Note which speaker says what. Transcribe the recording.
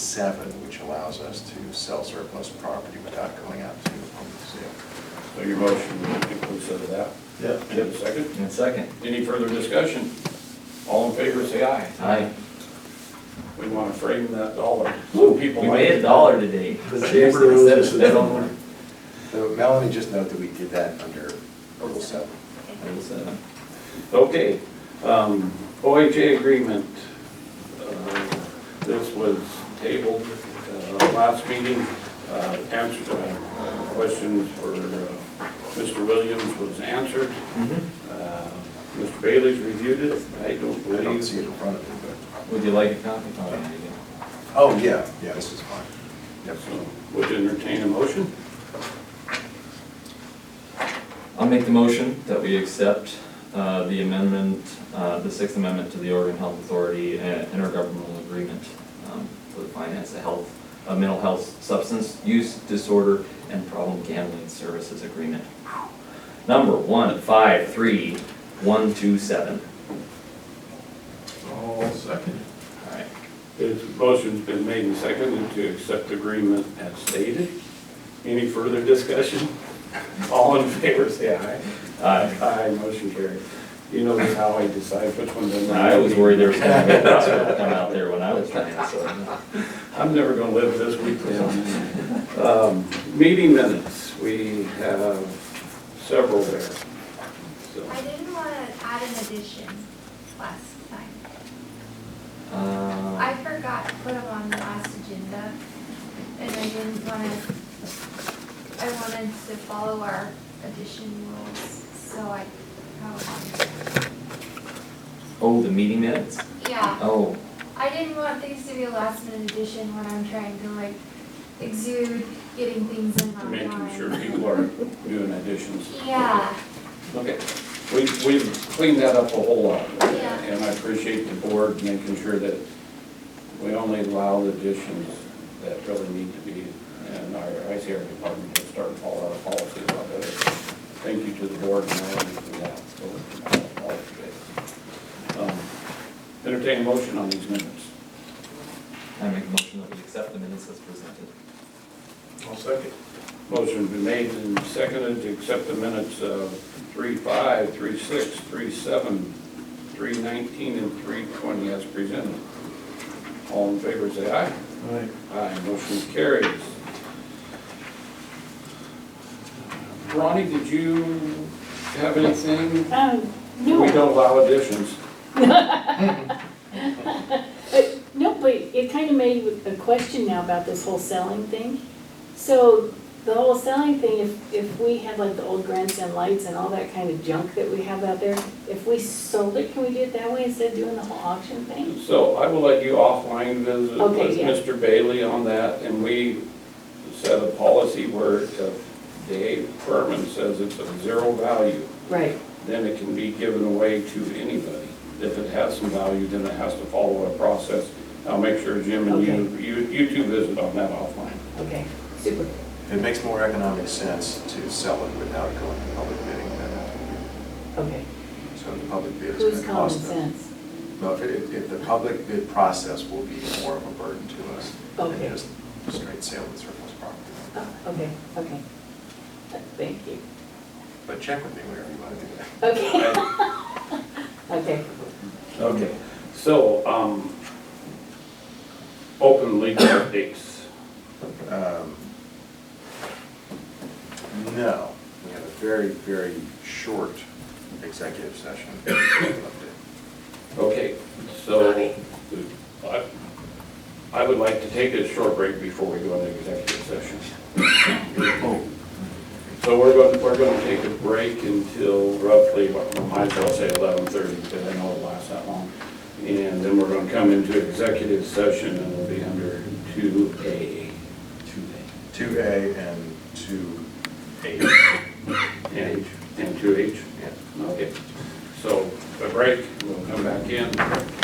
Speaker 1: seven, which allows us to sell surplus property without going out to open sale.
Speaker 2: So your motion includes of that?
Speaker 3: Yeah.
Speaker 2: And a second?
Speaker 3: And second.
Speaker 2: Any further discussion? All in favor, say aye.
Speaker 3: Aye.
Speaker 2: We want to frame that dollar.
Speaker 3: Woo,
Speaker 2: People
Speaker 3: we
Speaker 2: might-
Speaker 3: made a dollar today.
Speaker 4: The
Speaker 3: Seriously,
Speaker 4: neighbor
Speaker 3: instead
Speaker 4: owes us
Speaker 3: of
Speaker 4: a
Speaker 3: seven.
Speaker 4: dollar.
Speaker 1: So Melanie, just note that we did that under Rule seven.
Speaker 3: It was, uh,
Speaker 2: Okay, um, OHA agreement. Uh, This was tabled, uh, last meeting, uh, answered, uh, questions for, uh, Mr. Williams was answered. Uh, Mr. Bailey's reviewed it, I don't
Speaker 1: I don't see
Speaker 2: believe.
Speaker 1: it in front of me, but,
Speaker 3: Would you like a copy? Oh, yeah, you
Speaker 1: oh, yeah, yeah, this is fine. Yep.
Speaker 2: So, Would entertain a motion?
Speaker 3: do. I'll make the motion that we accept uh, the amendment, uh, the Sixth Amendment to the Oregon Health Authority uh, intergovernmental agreement um, for the finance of health, of mental health, substance use disorder, and problem gambling services agreement. Number one, five, three, one, two, seven.
Speaker 4: All second.
Speaker 3: All right.
Speaker 2: This motion's been made and seconded to accept the agreement as stated. Any further discussion? All in favor, say aye.
Speaker 3: Aye.
Speaker 2: Aye, motion carried. You know how I decide which one's in.
Speaker 3: I was worried there was gonna be a hospital come out there when I was trying, so.
Speaker 2: I'm never gonna live this week down. Um, Meeting minutes, we have several there. So,
Speaker 5: I didn't want to add an addition last time. I
Speaker 3: Uh,
Speaker 5: forgot to put them on the last agenda, and I didn't want to, I wanted to follow our addition rules, so I, oh,
Speaker 3: Oh, the meeting minutes?
Speaker 5: yeah.
Speaker 3: Oh,
Speaker 5: I didn't want things to be a last minute addition when I'm trying to like exude getting things in on
Speaker 2: making
Speaker 5: time.
Speaker 2: sure people are doing additions.
Speaker 5: Yeah,
Speaker 2: Okay, we, we've cleaned that up a whole lot.
Speaker 5: Yeah.
Speaker 2: And I appreciate the board making sure that we only allow the additions that really need to be. And our ICR department will start to follow our policies on that. Thank you to the board and all of you for that. So, all of you. Um, Entertain a motion on these minutes.
Speaker 3: I make a motion that we accept the minutes as presented.
Speaker 4: All second.
Speaker 2: Motion been made and seconded to accept the minutes of three five, three six, three seven, three nineteen, and three twenty as presented. All in favor, say aye.
Speaker 4: Aye.
Speaker 2: Aye, motion carries. Ronnie, did you have anything?
Speaker 6: Um,
Speaker 2: We
Speaker 6: no,
Speaker 2: don't allow additions.
Speaker 6: but, no, but it kind of made a question now about this whole selling thing. So the whole selling thing, if, if we had like the old grandstand lights and all that kind of junk that we have out there, if we sold it, can we do it that way instead of doing the whole auction thing?
Speaker 2: So I will let you offline visit
Speaker 6: Okay,
Speaker 2: with
Speaker 6: yeah.
Speaker 2: Mr. Bailey on that, and we set a policy where if Dave Furman says it's of zero value,
Speaker 6: Right.
Speaker 2: then it can be given away to anybody. If it has some value, then it has to follow a process. I'll make sure Jim and you, you, you two visit on that offline.
Speaker 6: Okay, super.
Speaker 1: It makes more economic sense to sell it without going to public bidding than,
Speaker 6: Okay.
Speaker 1: so the public bid is
Speaker 6: Who's
Speaker 1: going to
Speaker 6: common
Speaker 1: cost them.
Speaker 6: sense?
Speaker 1: No, if, it- if the public bid process will be more of a burden to us than
Speaker 6: Okay.
Speaker 1: just straight sale of surplus property.
Speaker 6: Oh, okay, okay. Thank you.
Speaker 1: But check with me whenever you want to do that.
Speaker 6: Okay. Okay.
Speaker 2: Okay, so, um, open legal updates.
Speaker 1: Um, No, we have a very, very short executive session.
Speaker 2: Okay, so I, I would like to take a short break before we go into executive session. So we're going, we're going to take a break until roughly, what, might as well say eleven thirty, because I know it lasts that long. And then we're going to come into executive session and we'll be under two A. Two
Speaker 1: Two A and two H.
Speaker 2: And, and two H?
Speaker 1: Yeah.
Speaker 2: Okay, so a break, we'll come back in.